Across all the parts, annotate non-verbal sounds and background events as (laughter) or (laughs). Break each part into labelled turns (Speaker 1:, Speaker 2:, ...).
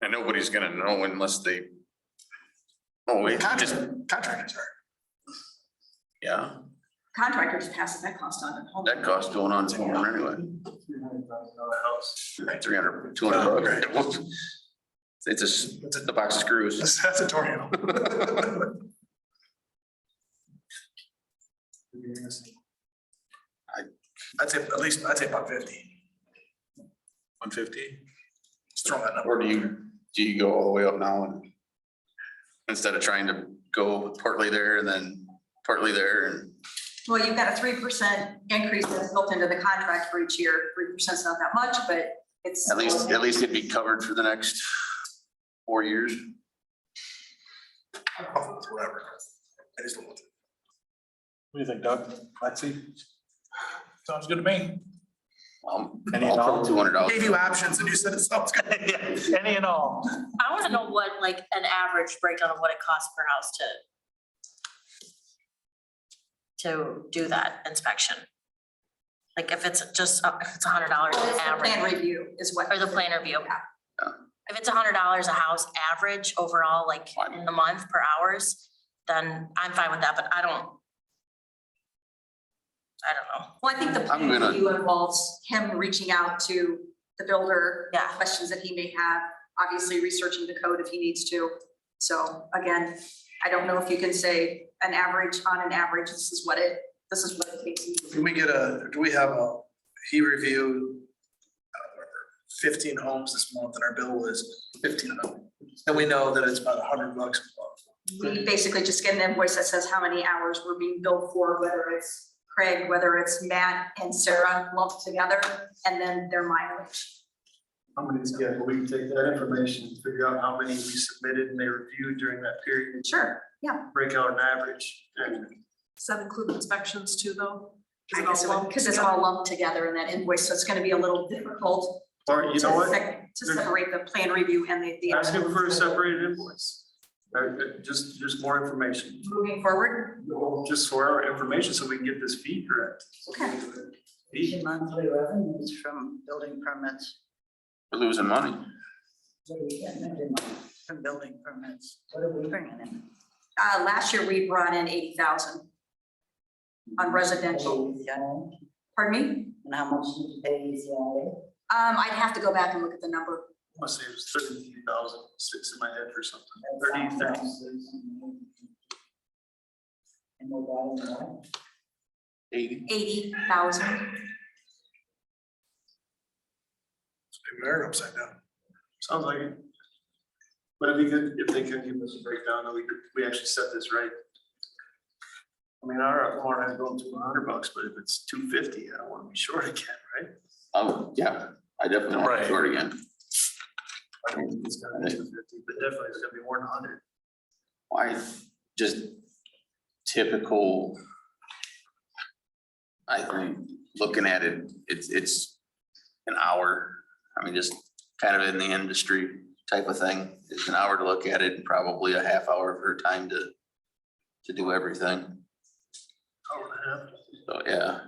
Speaker 1: And nobody's gonna know unless they. Oh, wait, just,
Speaker 2: Contractors are.
Speaker 1: yeah,
Speaker 3: Contractors passes that cost on to the home.
Speaker 1: that cost going on somewhere anyway. Three hundred, two hundred bucks. It's just, it's the box of screws.
Speaker 2: That's that's a tornado. I- I'd say at least, I'd say about fifty.
Speaker 1: One fifty?
Speaker 2: Just throw that number.
Speaker 1: Or do you, do you go all the way up now and? Instead of trying to go partly there and then partly there and,
Speaker 3: Well, you've got a three percent increase that's built into the contract for each year. Three percent's not that much, but it's.
Speaker 1: at least, at least it'd be covered for the next four years.
Speaker 2: Whatever. I just don't want to-
Speaker 4: What do you think, Doug? Lexi?
Speaker 2: Sounds good to me.
Speaker 1: Um,
Speaker 4: Any at
Speaker 1: I'll
Speaker 4: all?
Speaker 1: put two hundred dollars.
Speaker 2: Gave you options and you said it sounds good.
Speaker 4: (laughs) Any and all.
Speaker 5: I wanna know what, like, an average breakdown of what it costs per house to to do that inspection. Like, if it's just, uh, if it's a hundred dollars
Speaker 3: Well, it's the Plan
Speaker 5: average,
Speaker 3: review is what.
Speaker 5: or the plan review.
Speaker 3: Yeah.
Speaker 5: If it's a hundred dollars a house average overall, like, in the month per hours, then I'm fine with that, but I don't I don't know,
Speaker 3: Well, I think the
Speaker 1: I'm
Speaker 3: plan
Speaker 1: gonna-
Speaker 3: review involves him reaching out to the builder.
Speaker 5: Yeah.
Speaker 3: Questions that he may have, obviously researching the code if he needs to. So again, I don't know if you can say an average, on an average, this is what it, this is what it takes.
Speaker 2: Can we get a, do we have a, he reviewed uh, fifteen homes this month and our bill was fifteen of them. And we know that it's about a hundred bucks a month.
Speaker 3: We basically just get an invoice that says how many hours we're being billed for, whether it's Craig, whether it's Matt and Sarah lumped together, and then their mileage.
Speaker 6: How many, yeah, but we can take that information, and figure out how many we submitted and they reviewed during that period, and
Speaker 3: Sure,
Speaker 6: break out an average.
Speaker 7: Does that include inspections too, though? Is
Speaker 3: I
Speaker 7: it
Speaker 3: guess,
Speaker 7: all lumped
Speaker 3: because it's
Speaker 7: together?
Speaker 3: all lumped together in that invoice, so it's gonna be a little difficult
Speaker 6: Or you
Speaker 3: to
Speaker 6: know what,
Speaker 3: sec- to separate the plan review and the, the.
Speaker 6: ask him for a separated invoice. Or, uh, just, just more information,
Speaker 3: Moving forward,
Speaker 6: just for our information, so we can get this fee correct.
Speaker 3: okay,
Speaker 6: Fee,
Speaker 8: monthly revenues from building permits,
Speaker 1: We're losing money.
Speaker 8: what do we get every month from building permits? What are we bringing in?
Speaker 3: uh, last year we brought in eighty thousand on residential,
Speaker 8: And
Speaker 3: pardon me?
Speaker 8: how much is AECI?
Speaker 3: Um, I'd have to go back and look at the number,
Speaker 6: I must say it was thirteen thousand, six in my head or something, thirty, thirty.
Speaker 8: And we're bottom line,
Speaker 1: Eighty.
Speaker 3: eighty thousand,
Speaker 2: We are upside down.
Speaker 6: Sounds like it. But if you could, if they could give us a breakdown, that we could, we actually set this right. I mean, our warrant is going to a hundred bucks, but if it's two fifty, I don't wanna be short again, right?
Speaker 1: Oh, yeah, I definitely want to
Speaker 2: Right.
Speaker 1: do it again.
Speaker 6: I don't think it's gonna be two fifty, but definitely it's gonna be more than a hundred.
Speaker 1: I just typical. I think, looking at it, it's, it's an hour, I mean, just kind of in the industry type of thing. It's an hour to look at it and probably a half hour of her time to, to do everything.
Speaker 6: Hour and a half.
Speaker 1: So, yeah.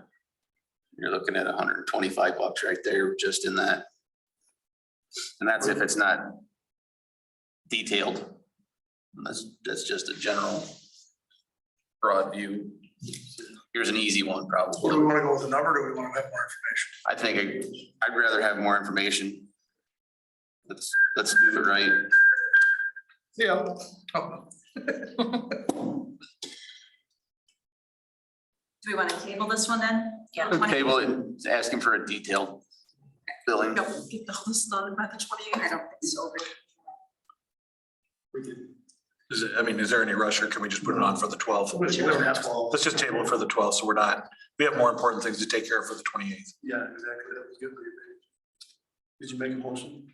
Speaker 1: You're looking at hundred and twenty-five bucks right there, just in that. And that's if it's not detailed. That's, that's just a general broad view. Here's an easy one,
Speaker 2: Well, do we
Speaker 1: probably.
Speaker 2: wanna go with a number, or do we wanna have more?
Speaker 1: I think I- I'd rather have more information. Let's, let's do it right.
Speaker 2: Yeah.
Speaker 3: do we wanna table this one then?
Speaker 5: Yeah.
Speaker 3: Wanna-
Speaker 1: Table it, ask him for a detailed billing.
Speaker 7: No, we get all this done by the twenty
Speaker 3: I
Speaker 7: eighth.
Speaker 3: don't think so,
Speaker 6: We could-
Speaker 9: Is it, I mean, is there any rush or can we just put it on for the twelfth?
Speaker 2: Which you don't have to.
Speaker 9: Let's just table it for the twelfth, so we're not, we have more important things to take care of for the twenty eighth.
Speaker 6: Yeah, exactly, that was good. for you, babe. Did you make a motion?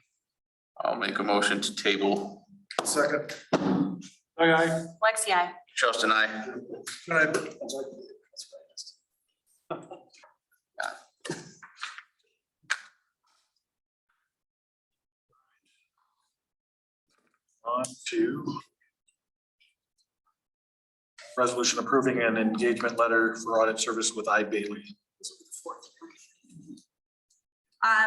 Speaker 1: I'll make a motion to table.
Speaker 2: Second.
Speaker 5: Lexi, I.
Speaker 1: Justin, I.
Speaker 2: All right.
Speaker 9: On to resolution approving an engagement letter for audit service with I Bailey.
Speaker 3: Um,